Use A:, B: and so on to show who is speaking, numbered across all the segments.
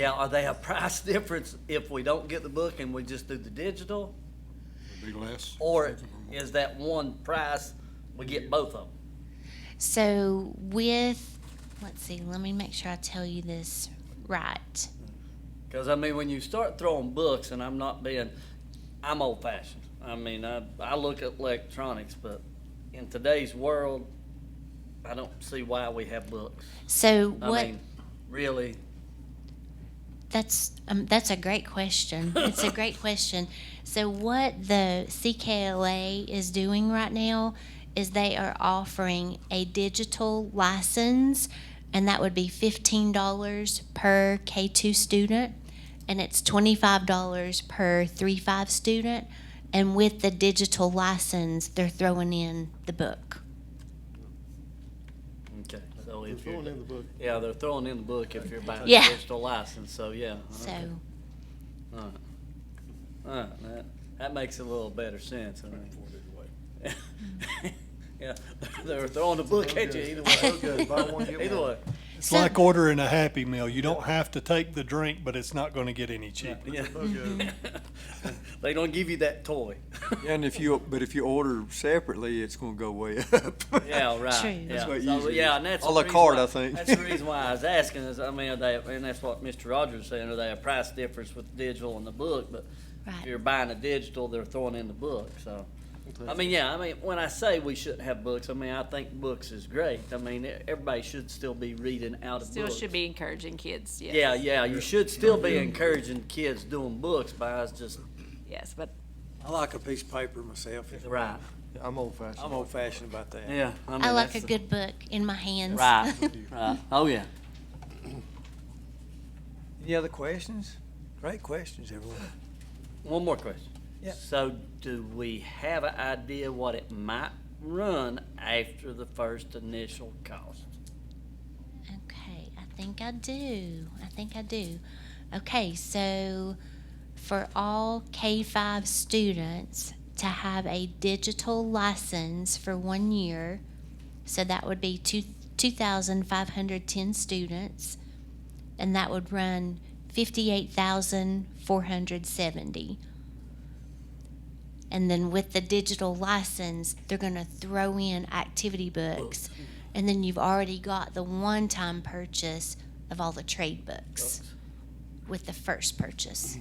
A: Yeah, are they a price difference if we don't get the book and we just do the digital?
B: Be less.
A: Or is that one price, we get both of them?
C: So with, let's see, let me make sure I tell you this right.
A: Because I mean, when you start throwing books, and I'm not being, I'm old fashioned. I mean, I, I look at electronics, but in today's world, I don't see why we have books.
C: So
A: I
C: what?
A: mean, really,
C: That's um, that's a great question. It's a great question. So what the CKLA is doing right now is they are offering a digital license, and that would be fifteen dollars per K two student, and it's twenty five dollars per three five student. And with the digital license, they're throwing in the book.
A: okay. So
D: We're
A: if
D: throwing
A: you're,
D: in the book.
A: yeah, they're throwing in the book if you're buying
C: Yeah.
A: a digital license. So yeah.
C: So.
A: okay. All right. All right, that, that makes a little better sense, I mean. Yeah, they're throwing the book at you either way.
D: Okay, buy one, get
A: Either
D: one.
A: way,
B: It's
C: So-
B: like ordering a Happy Meal. You don't have to take the drink, but it's not gonna get any cheaper.
A: yeah.
D: Okay.
A: They don't give you that toy.
E: Yeah, And if you, but if you order separately, it's gonna go way up.
A: Yeah,
C: True.
A: right, yeah.
E: That's what
A: So,
E: usually
A: Yeah,
E: is.
A: and that's.
E: A
A: the
E: la
A: reason
E: carte,
A: why-
E: I think.
A: That's the reason why I was asking is, I mean, are they, and that's what Mr. Rogers saying, are they a price difference with digital and the book? But if
C: Right.
A: you're buying a digital, they're throwing in the book, so. I mean, yeah, I mean, when I say we shouldn't have books, I mean, I think books is great. I mean, e- everybody should still be reading out of
F: Still
A: books.
F: should be encouraging kids, yes.
A: Yeah, yeah, you should still be encouraging kids doing books by us just,
F: Yes, but
G: I like a piece of paper myself.
A: right,
E: I'm old fashioned.
G: I'm old fashioned about that.
A: yeah. mean,
C: I like
A: that's
C: a
A: the-
C: good book in my hands.
A: Right, right, oh, yeah.
E: Any other questions?
G: Great questions, everyone.
A: One more question.
G: Yeah.
A: So do we have an idea what it might run after the first initial cost?
C: Okay, I think I do. I think I do. Okay, so for all K 5 students to have a digital license for one year, so that would be two, 2,510 students, and that would run 58,470. And then with the digital license, they're going to throw in activity books. And then you've already got the one time purchase of all the trade books with the first purchase.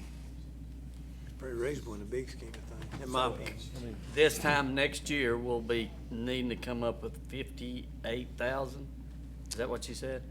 G: Pretty reasonable in the big scheme of things, in my opinion.
A: This time next year, we'll be needing to come up with fifty-eight thousand? Is that what you said?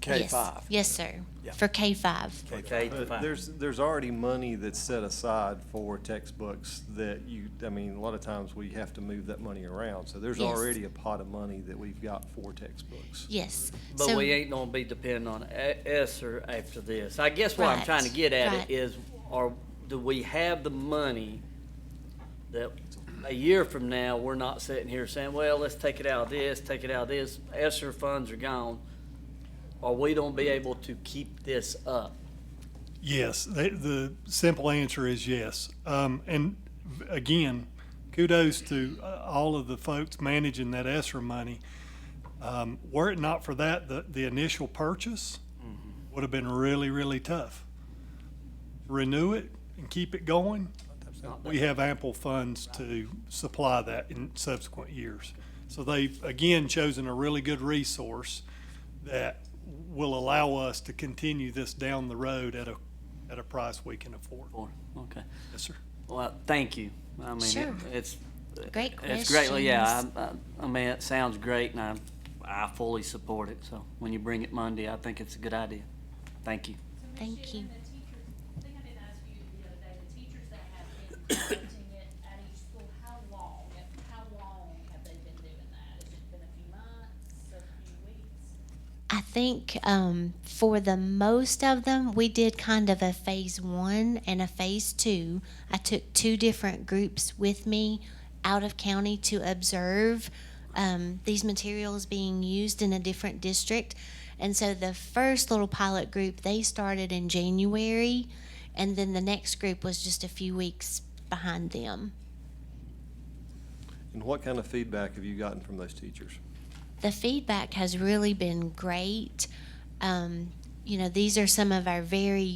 G: K
C: yes.
G: five.
C: Yes, sir.
G: Yeah.
C: For K 5.
A: Okay,
H: But
A: fine.
H: There's, there's already money that's set aside for textbooks that you, I mean, a lot of times we have to move that money around. So there's
C: Yes.
H: already a pot of money that we've got for textbooks.
C: Yes.
A: But
C: so,
A: we ain't gonna be depending on E- ESSER after this. I guess what I'm
C: Right,
A: trying to get at it
C: right.
A: is, are, do we have the money that a year from now, we're not sitting here saying, well, let's take it out of this, take it out of this, ESSER funds are gone. Are we gonna be able to keep this up?
B: Yes, the, the simple answer is yes. Um, and again, kudos to uh, all of the folks managing that ESSER money. Um, were it not for that, the, the initial purchase would have been really, really tough. Renew it and keep it going. We have ample funds to supply that in subsequent years. So they've, again, chosen a really good resource that will allow us to continue this down the road at a, at a price we can afford.
A: Or, okay.
B: Yes, sir.
A: Well, thank you. I mean,
C: Sure.
A: it- it's.
C: Great
A: It's greatly, yeah, I, I, I mean, it sounds great and I, I fully support it. So when you bring it Monday, I think it's a good idea. Thank you.
C: thank you.
I: The teachers, I think I did ask you the other day, the teachers that have been conducting it at each school, how long, how long have they been doing that? Has it been a few months, a few weeks?
C: I think um, for the most of them, we did kind of a phase one and a phase two. I took two different groups with me out of county to observe um, these materials being used in a different district. And so the first little pilot group, they started in January, and then the next group was just a few weeks behind them.
H: And what kind of feedback have you gotten from those teachers?
C: the feedback has really been great. Um, you know, these are some of our very